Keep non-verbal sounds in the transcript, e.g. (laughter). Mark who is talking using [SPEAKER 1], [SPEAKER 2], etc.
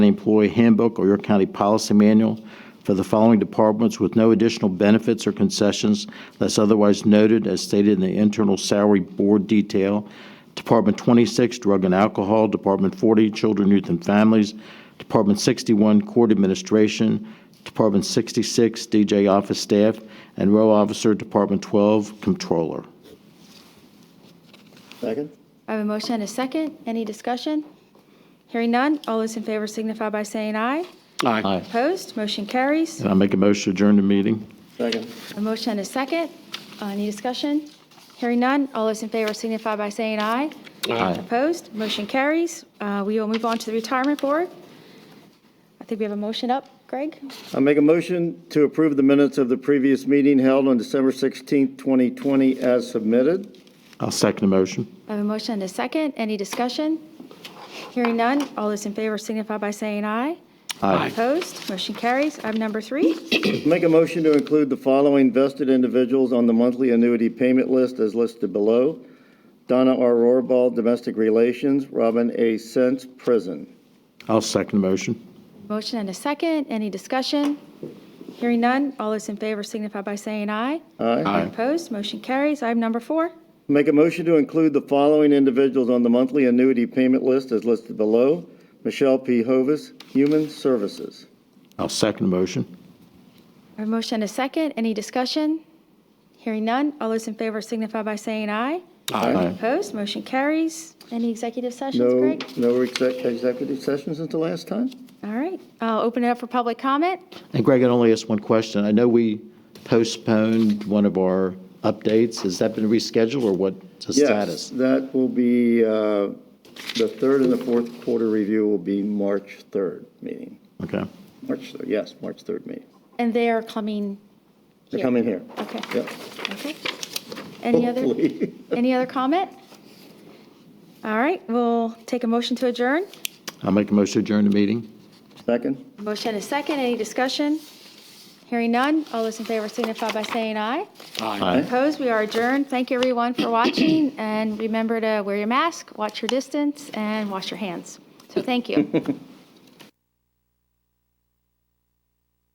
[SPEAKER 1] Employee Handbook or York County Policy Manual for the following departments with no additional benefits or concessions unless otherwise noted as stated in the internal salary board detail. Department 26, Drug and Alcohol. Department 40, Children, Youth, and Families. Department 61, Court Administration. Department 66, DJ Office Staff. And Row Officer, Department 12, Controller.
[SPEAKER 2] Second?
[SPEAKER 3] I have a motion and a second. Any discussion? Hearing none. All those in favor signify by saying aye.
[SPEAKER 1] Aye.
[SPEAKER 3] Opposed? Motion carries.
[SPEAKER 1] And I make a motion to adjourn the meeting.
[SPEAKER 2] Second.
[SPEAKER 3] A motion and a second. Uh, Any discussion? Hearing none. All those in favor signify by saying aye.
[SPEAKER 1] Aye.
[SPEAKER 3] Opposed? Motion carries. Uh, We will move on to the retirement board. I think we have a motion up, Greg.
[SPEAKER 2] I make a motion to approve the minutes of the previous meeting held on December 16th, 2020, as submitted.
[SPEAKER 1] I'll second the motion.
[SPEAKER 3] I have a motion and a second. Any discussion? Hearing none. All those in favor signify by saying aye.
[SPEAKER 1] Aye.
[SPEAKER 3] Opposed? Motion carries. Item number three.
[SPEAKER 2] Make a motion to include the following vested individuals on the monthly annuity payment list as listed below. Donna R. Rohrbal, Domestic Relations, Robin A. Sense, Prison.
[SPEAKER 1] I'll second the motion.
[SPEAKER 3] Motion and a second. Any discussion? Hearing none. All those in favor signify by saying aye.
[SPEAKER 2] Aye.
[SPEAKER 3] Opposed? Motion carries. Item number four.
[SPEAKER 2] Make a motion to include the following individuals on the monthly annuity payment list as listed below. Michelle P. Hovis, Human Services.
[SPEAKER 1] I'll second the motion.
[SPEAKER 3] I have a motion and a second. Any discussion? Hearing none. All those in favor signify by saying aye.
[SPEAKER 1] Aye.
[SPEAKER 3] Opposed? Motion carries. Any executive sessions,
[SPEAKER 2] No,
[SPEAKER 3] Greg?
[SPEAKER 2] no exec- executive sessions since the last time?
[SPEAKER 3] All right. I'll open it up for public comment.
[SPEAKER 1] And Greg, I'd only ask one question. I know we postponed one of our updates. Has that been rescheduled or what's the
[SPEAKER 2] Yes,
[SPEAKER 1] status?
[SPEAKER 2] that will be, uh, the third and the fourth quarter review will be March 3rd meeting.
[SPEAKER 1] Okay.
[SPEAKER 2] March, third, yes, March 3rd meeting.
[SPEAKER 3] And they are coming here.
[SPEAKER 2] They're coming here.
[SPEAKER 3] Okay.
[SPEAKER 2] Yep.
[SPEAKER 3] Okay. Any other,
[SPEAKER 2] Hopefully. (laughs)
[SPEAKER 3] any other comment? All right. We'll take a motion to adjourn.
[SPEAKER 1] I'll make a motion to adjourn the meeting.
[SPEAKER 2] Second?
[SPEAKER 3] Motion and a second. Any discussion? Hearing none. All those in favor signify by saying aye.
[SPEAKER 1] Aye.
[SPEAKER 3] Opposed, we are adjourned. Thank you, everyone, for watching, and remember to wear your mask, watch your distance, and wash your hands. So thank you.